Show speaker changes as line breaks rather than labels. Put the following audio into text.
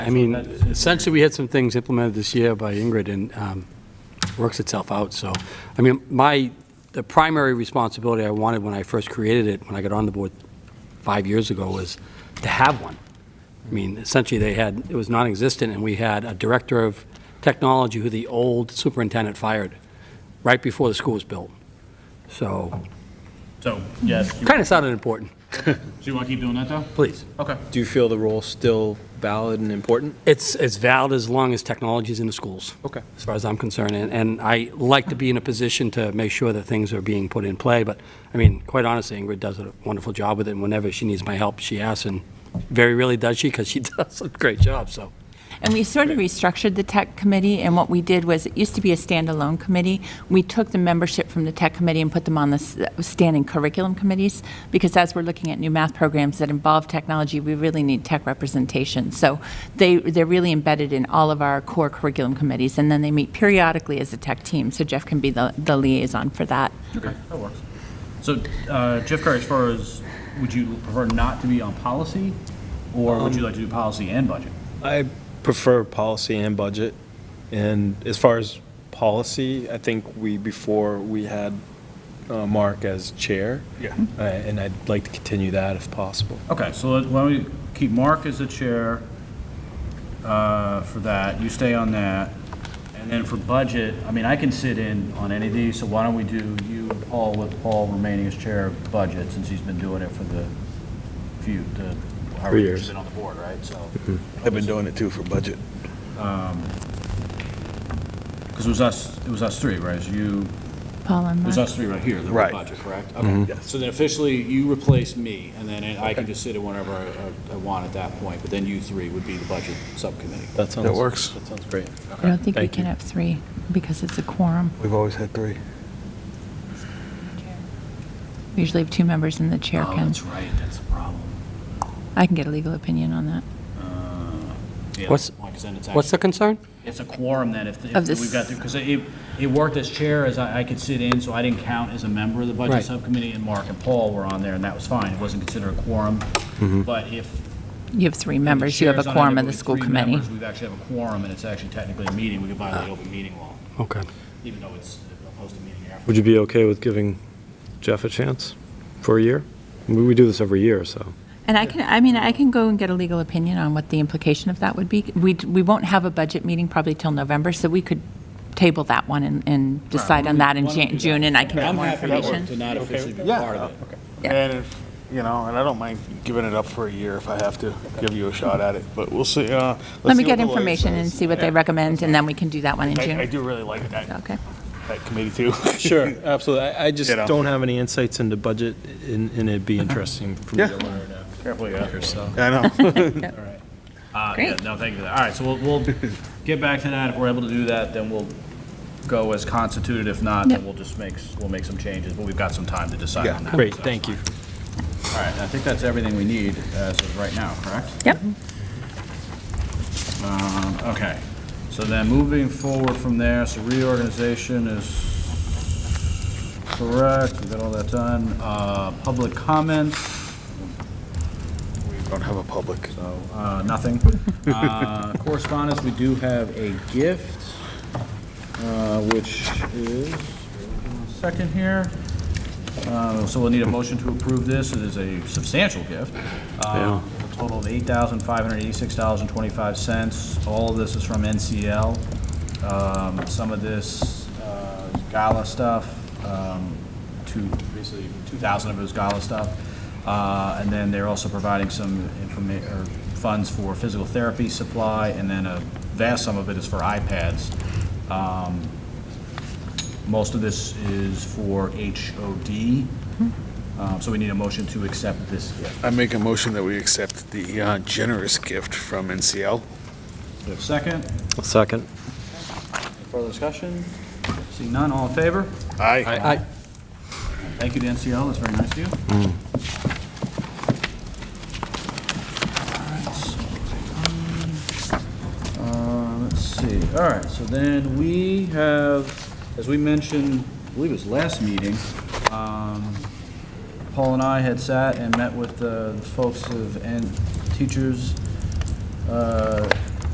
I mean, essentially, we had some things implemented this year by Ingrid, and um, works itself out, so, I mean, my, the primary responsibility I wanted when I first created it, when I got on the board five years ago, was to have one. I mean, essentially, they had, it was non-existent, and we had a director of technology who the old superintendent fired right before the school was built. So,
So, yes, you-
kind of sounded important,
so you want to keep doing that, though?
please.
Okay.
Do you feel the role's still valid and important?
It's as valid as long as technology is in the schools.
Okay.
As far as I'm concerned, and, and I like to be in a position to make sure that things are being put in play, but, I mean, quite honestly, Ingrid does a wonderful job with it, and whenever she needs my help, she asks, and very rarely does she, because she does a great job, so.
And we sort of restructured the tech committee, and what we did was, it used to be a standalone committee. We took the membership from the tech committee and put them on the s- standing curriculum committees, because as we're looking at new math programs that involve technology, we really need tech representation. So they, they're really embedded in all of our core curriculum committees, and then they meet periodically as a tech team, so Jeff can be the, the liaison for that.
Okay, that works. So, uh, Jeff Curry, as far as, would you prefer not to be on policy, or would
Um,
you like to do policy and budget?
I prefer policy and budget. And as far as policy, I think we, before, we had uh, Mark as chair.
Yeah.
Uh, And I'd like to continue that if possible.
Hmm? Okay, so let- why don't we keep Mark as the chair uh, for that, you stay on that, and then for budget, I mean, I can sit in on any of these, so why don't we do you and Paul with Paul remaining as chair of budget, since he's been doing it for the few, the, however,
Three
he's
years. Mm-hmm.
been on the board, right, so.
I've been doing it too for budget.
Because it was us, it was us three, right? It was you,
Paul and
it was
Mark?
us three right here, the
Right.
budget, correct?
Mm-hmm.
Okay. So then officially, you replace me, and then I can just sit in whenever I- I I want at that point, but then you three would be the budget subcommittee.
That sounds.
That works.
That sounds great.
I don't think we
Thank
can
you.
have three, because it's a quorum.
We've always had three.
We usually have two members and the chair
Oh,
can.
that's right, that's a problem.
I can get a legal opinion on that.
Uh, Yeah,
What's-
that's a point, 'cause then it's
What's the
actually-
concern?
It's a quorum then, if,
Of
if
this-
we've got, because it, it worked as chair, as I I could sit in, so I didn't count as a member of the budget
Right.
subcommittee, and Mark and Paul were on there, and that was fine, it wasn't considered a quorum.
Mm-hmm.
But if
You have three
the
members, you have
chair's
a
on it,
quorum
but
of the
with
school
three
committee.
members, We've actually have a quorum, and it's actually technically a meeting, we could violate open meeting law.
Okay.
even though it's opposed to meeting after.
Would you be okay with giving Jeff a chance for a year? We we do this every year, so.
And I can, I mean, I can go and get a legal opinion on what the implication of that would be. We, we won't have a budget meeting probably till November, so we could table that one and, and decide on that in Jan- June, and I can get more information.
not officially be
part
of it.
Yeah.
And if, you know, and I don't mind giving it up for a year if I have to give you a shot at it, but we'll see. uh, let's
Let me
see what
get
the lawyer
information and
says.
see what they recommend, and then we can do that one in
I, I
June.
do really like that,
Okay.
that committee too.
Sure, absolutely. I, I just
You know.
don't have any insights into budget and, and it'd be interesting for me to learn
Carefully, yeah.
after, so.
I know.
Uh, yeah,
Great.
no, thank you for that. All right, so we'll, we'll get back to that. If we're able to do that, then we'll go as constituted. If not, then
Yep.
we'll just make, s- we'll make some changes, but we've got some time to decide on that.
Great,
so.
thank you.
All right, I think that's everything we need uh, as of right now, correct?
Yep.
Um, Okay, so then moving forward from there, so reorganization is correct, we got all that done. Uh, Public comments,
We don't have a public.
so uh, nothing. Uh, Correspondence, we do have a gift, uh, which is, one second here. Uh, So we'll need a motion to approve this, it is a substantial gift.
Yeah.
Uh, A total of $8,586.25. All of this is from NCL. Um, Some of this uh, Gala stuff, um, two, basically 2,000 of it was Gala stuff. Uh, And then they're also providing some informa, or funds for physical therapy supply, and then a vast sum of it is for iPads. Um, Most of this is for HOD, Um, so we need a motion to accept this gift.
I make a motion that we accept the uh, generous gift from NCL.
Do we have a second?
Second.
Further discussion? Seeing none, all in favor?
Aye.
Thank you to NCL, that's very nice of you. Alright, so, um, uh, Let's see, all right, so then we have, as we mentioned, I believe it was last meeting, um, Paul and I had sat and met with the folks of, and teachers uh,